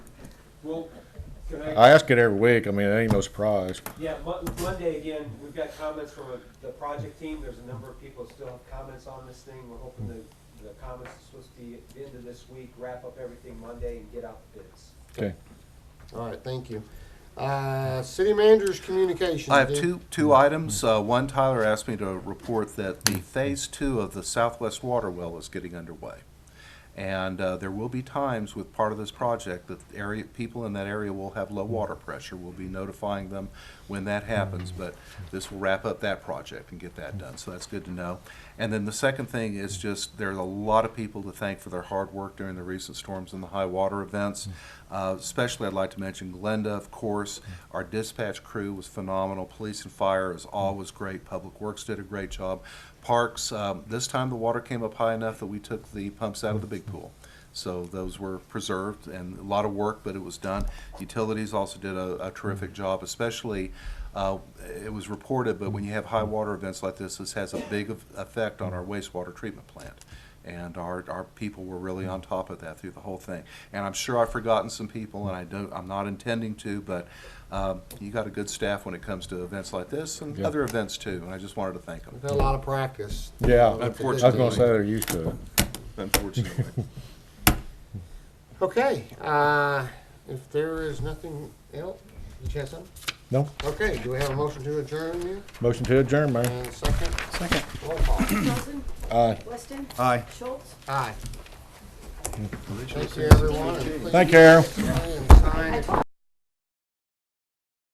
Well, can I, I ask it every week. I mean, it ain't no surprise. yeah, Mon- Monday again, we've got comments from the project team. There's a number of people that still have comments on this thing. We're hoping the, the comments are supposed to be at the end of this week, wrap up everything Monday and get out the bids. Okay. All right, thank you. Uh, City manager's communications. I have Dick. two, two items. Uh, One, Tyler asked me to report that the Phase Two of the Southwest Water Well is getting underway. And uh, there will be times with part of this project that the area, people in that area will have low water pressure. We'll be notifying them when that happens, but this will wrap up that project and get that done, so that's good to know. And then the second thing is just, there's a lot of people to thank for their hard work during the recent storms and the high water events. Uh, Especially, I'd like to mention Glenda, of course. Our dispatch crew was phenomenal. Police and fire is always great. Public Works did a great job. Parks, um, this time the water came up high enough that we took the pumps out of the big pool. So those were preserved and a lot of work, but it was done. Utilities also did a, a terrific job, especially, uh, it was reported, but when you have high water events like this, this has a big of- effect on our wastewater treatment plant. And our, our people were really on top of that through the whole thing. And I'm sure I've forgotten some people and I don't, I'm not intending to, but, um, you got a good staff when it comes to events like this and Yeah. other events too, and I just wanted to thank them. We've had a lot of practice. Yeah. Uh, with the I was gonna district. say they're used to it. unfortunately. Okay, uh, if there is nothing else, you have something? No. Okay, do we have a motion to adjourn here? Motion to adjourn, man. And second? Second. Roll call. Johnson? Aye. Weston? Aye. Schultz? Aye. Thank you, everyone. and please Thank you, Carol. stay and sign if-